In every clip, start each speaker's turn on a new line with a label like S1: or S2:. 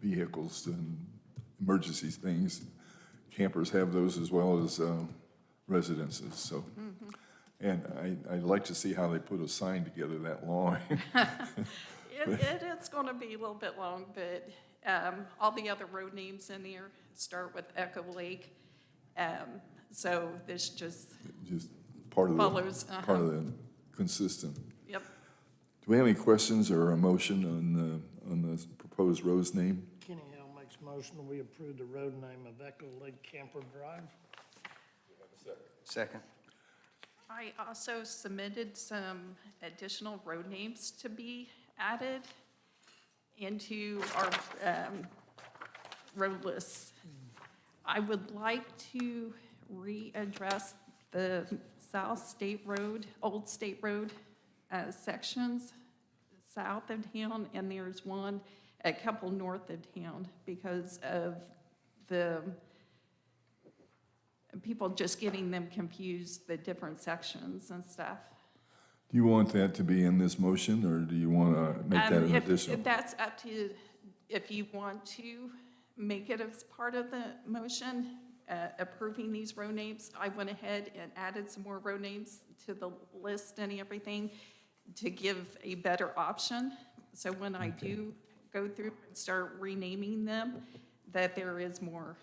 S1: vehicles and emergency things. Campers have those as well as uh, residences, so.
S2: Mm-hmm.
S1: And I, I'd like to see how they put a sign together that long.
S2: It, it, it's gonna be a little bit long, but, um, all the other road names in there start with Echo Lake. Um, so this just,
S1: Just part of
S2: Follows,
S1: the,
S2: uh-huh.
S1: part of the consistent.
S2: yep,
S1: Do we have any questions or a motion on the, on the proposed road's name?
S3: Kenny Hill makes motion, that we approve the road name of Echo Lake Camper Drive.
S4: Second.
S2: I also submitted some additional road names to be added into our um, road lists. I would like to readdress the South State Road, Old State Road uh, sections south of town, and there's one, a couple north of town because of the people just getting them confused, the different sections and stuff.
S1: Do you want that to be in this motion, or do you want to make that
S2: Um,
S1: an
S2: if-
S1: additional?
S2: if That's up to, if you want to make it as part of the motion, uh, approving these row names. I went ahead and added some more row names to the list and everything to give a better option. So when I do go through and start renaming them, that there is more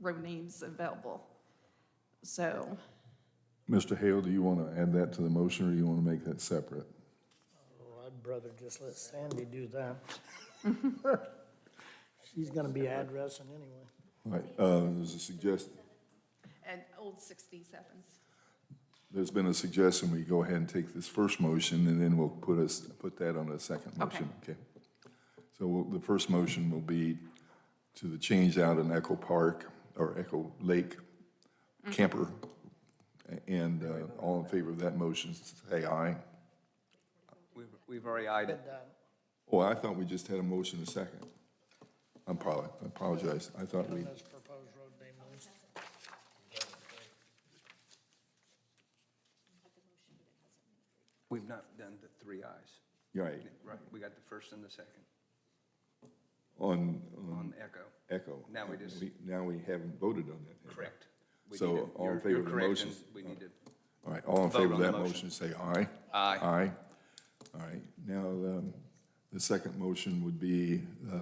S2: row names available. So,
S1: Mr. Hale, do you want to add that to the motion, or you want to make that separate?
S3: Oh, I'd brother just let Sandy do that. She's gonna be addressing anyway.
S1: All Right, uh, there's a suggest,
S2: and old 67s.
S1: there's been a suggestion, we go ahead and take this first motion, and then we'll put us, put that on a second motion. Okay. So we'll- the first motion will be to the change out in Echo Park, or Echo Lake Camper, A- and uh, all in favor of that motion, say aye.
S4: We've, we've already eyed it.
S1: Oh, I thought we just had a motion and a second. I'm probably, I apologize, I thought we,
S3: That's proposed road name list.
S4: We've not done the three eyes.
S1: you're right,
S4: Right, we got the first and the second
S1: on, on
S4: on Echo.
S1: Echo.
S4: Now we just-
S1: Now we haven't voted on that.
S4: Correct. We
S1: So,
S4: need to-
S1: all in
S4: you're-
S1: favor
S4: you're
S1: of the
S4: correct,
S1: motion?
S4: and We need to,
S1: All right, all in
S4: Vote
S1: favor of
S4: on the
S1: that motion,
S4: motion.
S1: say aye.
S4: Aye.
S1: Aye. All right, now, um, the second motion would be uh,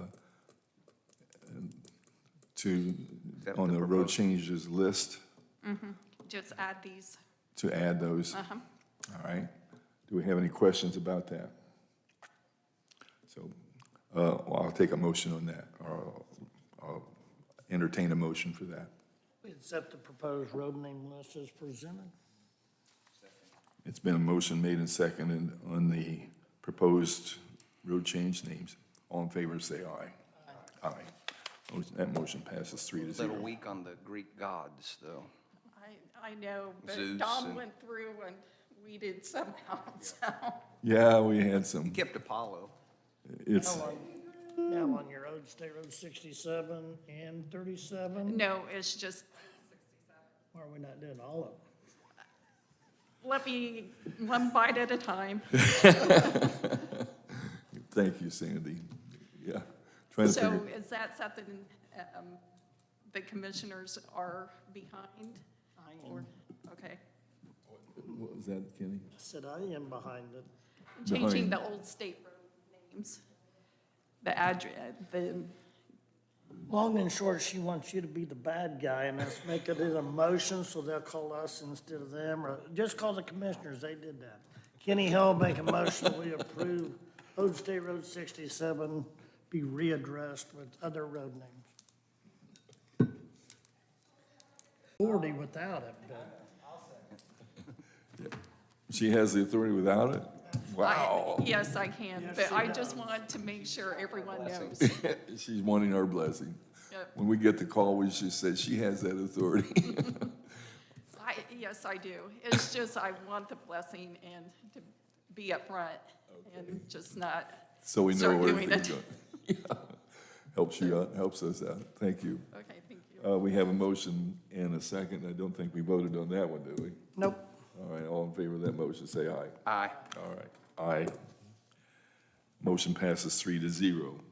S1: to,
S4: Accept
S1: on
S4: the
S1: the road
S4: proposed-
S1: changes list,
S2: Just add these.
S1: to add those. All right, do we have any questions about that? So, uh, well, I'll take a motion on that, or I'll- I'll entertain a motion for that.
S3: We accept the proposed road name list as presented.
S1: It's been a motion made and seconded on the proposed road change names. All in favor, say aye. Aye. Motion- That motion passes three to
S4: a little
S1: zero.
S4: weak on the Greek gods, though.
S2: I, I know, but
S4: Zeus
S2: Don
S4: and-
S2: went through and weeded somehow, so.
S1: Yeah, we had some,
S4: Kept Apollo.
S1: it's,
S3: Now on- Now on your road, State Road sixty-seven and thirty-seven,
S2: No, it's just,
S3: why are we not doing all of them?
S2: let me, one bite at a time.
S1: thank you, Sandy. Yeah. Trying to
S2: So
S1: figure,
S2: is that something um, the commissioners are behind?
S3: I
S2: Or, okay.
S1: what was that, Kenny?
S3: Said I am behind it.
S2: Changing
S1: Behind.
S2: the old state road names, the address, the,
S3: Long and short, she wants you to be the bad guy and us make it in a motion, so they'll call us instead of them, or just call the commissioners, they did that. Kenny Hill make a motion, we approve Old State Road sixty-seven be readdressed with other road names. Forty without it, but
S1: She has the authority without it?
S2: I-
S1: Wow.
S2: yes, I can, but I just wanted to make sure everyone knows.
S1: She's wanting our blessing.
S2: Yep.
S1: When we get the call, we should say, she has that authority.
S2: I, yes, I do. It's just I want the blessing and to be upfront and just not,
S1: So we know
S2: Start
S1: where
S2: doing
S1: everything's
S2: it.
S1: going. Yeah. Helps you out, helps us out. Thank you.
S2: okay, thank you.
S1: Uh, we have a motion and a second. I don't think we voted on that one, do we?
S3: nope.
S1: All right, all in favor of that motion, say aye.
S4: Aye.
S1: All right, aye. Motion passes three to zero.